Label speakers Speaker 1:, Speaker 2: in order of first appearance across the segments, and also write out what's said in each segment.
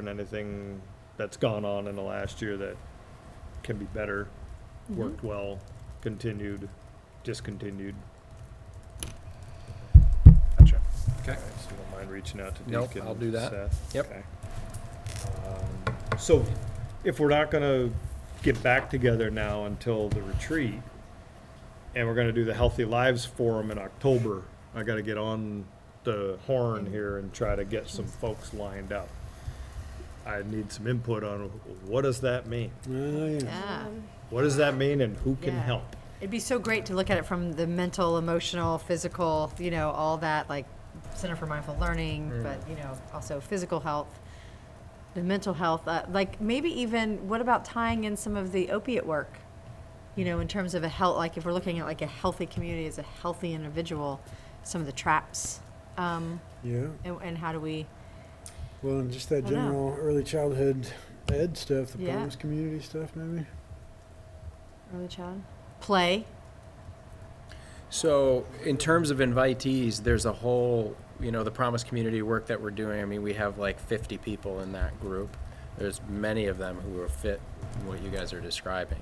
Speaker 1: and anything that's gone on in the last year that can be better, worked well, continued, discontinued.
Speaker 2: Gotcha.
Speaker 1: All
Speaker 2: Okay.
Speaker 1: right, So you don't mind reaching out to
Speaker 2: Nope,
Speaker 1: Deacon?
Speaker 2: I'll do that.
Speaker 1: Seth?
Speaker 2: Yep.
Speaker 1: Okay. Um, So if we're not gonna get back together now until the retreat, and we're gonna do the Healthy Lives Forum in October, I gotta get on the horn here and try to get some folks lined up. I need some input on what does that mean?
Speaker 3: Yeah.
Speaker 1: What does that mean and who can
Speaker 3: Yeah.
Speaker 1: help?
Speaker 3: It'd be so great to look at it from the mental, emotional, physical, you know, all that, like Center for Mindful Learning, but, you know, also physical health, the mental health, uh, like maybe even, what about tying in some of the opiate work? You know, in terms of a health, like if we're looking at like a healthy community as a healthy individual, some of the traps, um,
Speaker 4: Yeah,
Speaker 3: and, and how do we,
Speaker 4: well, and just that
Speaker 3: I don't know.
Speaker 4: general early childhood ed stuff, the
Speaker 3: Yeah.
Speaker 4: promise community stuff, maybe.
Speaker 3: early child, play,
Speaker 2: So in terms of invitees, there's a whole, you know, the Promise Community work that we're doing. I mean, we have like 50 people in that group. There's many of them who will fit what you guys are describing.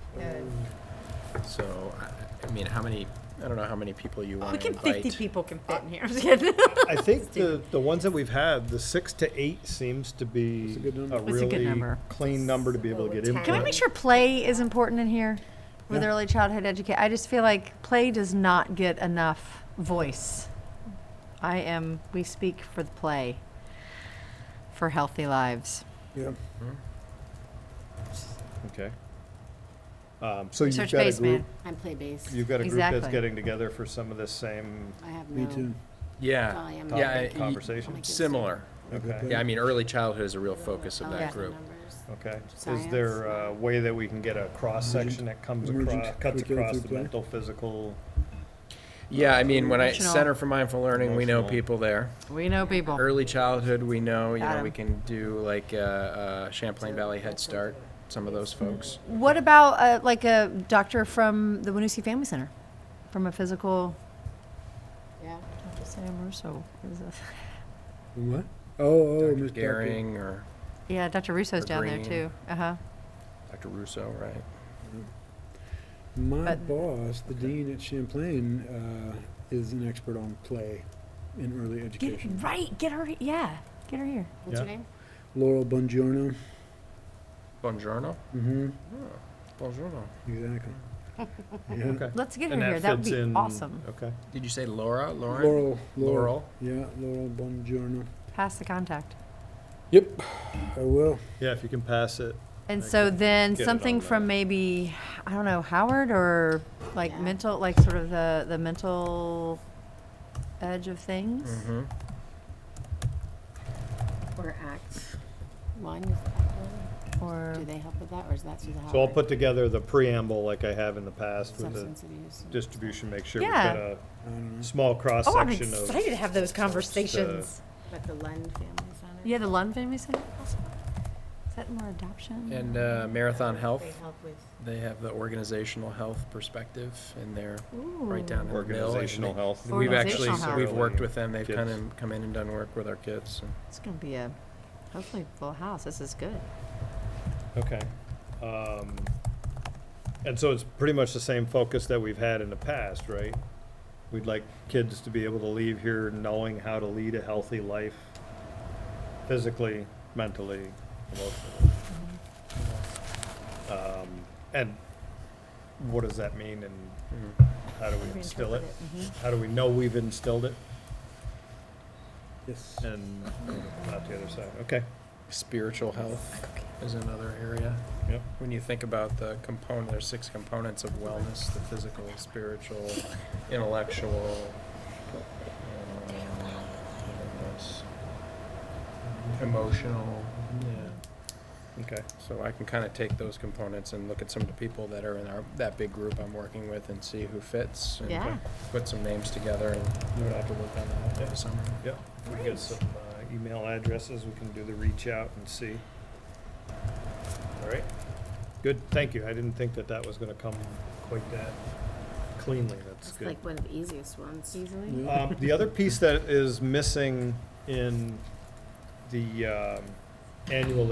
Speaker 2: So, I- I mean, how many, I don't know how many people you
Speaker 3: we
Speaker 2: want to
Speaker 3: can, fifty
Speaker 2: invite.
Speaker 3: people can fit in here, I'm just kidding.
Speaker 1: I think the, the ones that we've had, the six to eight seems to be
Speaker 4: That's a good number.
Speaker 1: a
Speaker 3: That's a good
Speaker 1: really
Speaker 3: number.
Speaker 1: clean number to be able to get input.
Speaker 3: Can we make sure play is important in here with
Speaker 4: Yeah.
Speaker 3: early childhood education? I just feel like play does not get enough voice. I am, we speak for the play, for healthy lives.
Speaker 4: Yeah,
Speaker 1: Okay. Um, so you've
Speaker 3: Research
Speaker 1: got a
Speaker 3: based,
Speaker 1: group,
Speaker 3: man.
Speaker 5: I'm play-based.
Speaker 1: you've got a group that's
Speaker 3: Exactly.
Speaker 1: getting together for some of this same
Speaker 5: I have no.
Speaker 4: me too.
Speaker 2: Yeah,
Speaker 5: volume.
Speaker 1: topic
Speaker 2: Yeah,
Speaker 1: and
Speaker 2: y-
Speaker 1: conversation.
Speaker 2: similar.
Speaker 3: Oh
Speaker 1: Okay,
Speaker 2: Yeah, I mean, early childhood is a real focus of
Speaker 5: I'll
Speaker 2: that
Speaker 3: Yeah.
Speaker 5: look at the
Speaker 2: group.
Speaker 5: numbers.
Speaker 1: okay. Is
Speaker 5: Science.
Speaker 1: there a way that we can get a cross-section that comes
Speaker 4: Emergent
Speaker 1: across, cuts
Speaker 4: curriculum
Speaker 1: across
Speaker 4: through
Speaker 1: the
Speaker 4: play.
Speaker 1: mental, physical?
Speaker 2: Yeah, I mean, when I,
Speaker 3: Emotional.
Speaker 2: Center for Mindful Learning, we know
Speaker 1: Emotional.
Speaker 2: people there.
Speaker 3: We know people.
Speaker 1: Er,
Speaker 2: Early childhood, we know, you know,
Speaker 3: Adam.
Speaker 2: we can do like uh, uh, Champlain Valley Head Start, some of those folks.
Speaker 3: What about uh, like a doctor from the Winusi Family Center, from a physical?
Speaker 5: Yeah.
Speaker 3: Dr. Sam Russo is a-
Speaker 4: And What? Oh, oh,
Speaker 2: Dr.
Speaker 4: Miss Becker.
Speaker 2: Gehring or
Speaker 3: Yeah, Dr. Russo's
Speaker 2: Or
Speaker 3: down there
Speaker 2: Green.
Speaker 3: too. Uh huh.
Speaker 2: Dr. Russo, right?
Speaker 4: My
Speaker 3: But-
Speaker 4: boss, the dean at Champlain, uh, is an expert on play in early
Speaker 3: Get
Speaker 4: education.
Speaker 3: right. Get her. Yeah. Get her here.
Speaker 5: What's your
Speaker 1: Yeah.
Speaker 5: name?
Speaker 4: Laurel Bongiorno.
Speaker 2: Buongiorno?
Speaker 4: Mm-hmm.
Speaker 2: Buongiorno.
Speaker 4: Exactly. Yeah.
Speaker 1: Okay.
Speaker 3: Let's get
Speaker 1: And
Speaker 3: her here.
Speaker 1: that
Speaker 3: That would
Speaker 1: fits
Speaker 3: be
Speaker 1: in,
Speaker 3: awesome.
Speaker 1: okay.
Speaker 2: Did you say Laura? Lauren?
Speaker 4: Laurel, Laurel.
Speaker 2: Laurel.
Speaker 4: Yeah, Laurel Bongiorno.
Speaker 3: Pass the contact.
Speaker 4: Yep. I will.
Speaker 1: Yeah, if you can pass it.
Speaker 3: And
Speaker 1: I
Speaker 3: so
Speaker 1: can
Speaker 3: then
Speaker 1: get it
Speaker 3: something
Speaker 1: on
Speaker 3: from
Speaker 1: the-
Speaker 3: maybe, I don't know, Howard or like
Speaker 5: Yeah.
Speaker 3: mental, like sort of the, the mental edge of things?
Speaker 2: Mm-hmm.
Speaker 5: Or Act One? is Act One?
Speaker 3: Or,
Speaker 5: Do they help with that, or is that through the Howard?
Speaker 1: So I'll put together the preamble like I have in the past with the
Speaker 5: Substance abuse. and-
Speaker 1: distribution, make sure we've
Speaker 3: Yeah.
Speaker 1: got a
Speaker 4: I don't know.
Speaker 1: small
Speaker 3: oh, I'm
Speaker 1: cross-section of.
Speaker 3: excited to have those conversations.
Speaker 5: But the Lund family's on it?
Speaker 3: Yeah, the Lund Family Center also? Is that more adoption?
Speaker 2: And uh, Marathon Health,
Speaker 5: They help with,
Speaker 2: they have the organizational health perspective and they're
Speaker 3: Ooh.
Speaker 2: right down in the middle. and
Speaker 1: Organizational health.
Speaker 2: they- We've actually,
Speaker 3: Organizational
Speaker 2: we've
Speaker 1: health.
Speaker 2: worked with them. They've
Speaker 1: Kids.
Speaker 2: kind of come in and done work with our kids. and-
Speaker 3: It's gonna be a, hopefully full house. This is good.
Speaker 1: Okay. Um, And so it's pretty much the same focus that we've had in the past, right? We'd like kids to be able to leave here knowing how to lead a healthy life, physically, mentally, emotionally. Um, And what does that mean and
Speaker 2: Mm-hmm.
Speaker 1: how do we instill it?
Speaker 3: Mm-hmm.
Speaker 1: How do we know we've instilled it
Speaker 4: Yes.
Speaker 1: and not the other side? Okay,
Speaker 2: Spiritual health is another area.
Speaker 1: yep.
Speaker 2: When you think about the component, there's six components of wellness, the physical, spiritual, intellectual. um, what else? um, Emotional, yeah.
Speaker 1: Okay,
Speaker 2: So I can kind of take those components and look at some of the people that are in our, that big group I'm working with and see who fits. and
Speaker 3: Yeah.
Speaker 2: Put some names together and we'll have to work on that over the summer.
Speaker 1: yep. If We get some uh, email addresses, we can do the reach out and see. All right, good, thank you. I didn't think that that was gonna come quite that cleanly, that's
Speaker 5: it's
Speaker 1: good.
Speaker 5: like one of the easiest ones.
Speaker 3: Easily?
Speaker 4: Yeah.
Speaker 1: Um, the other piece that is missing in the, um, annual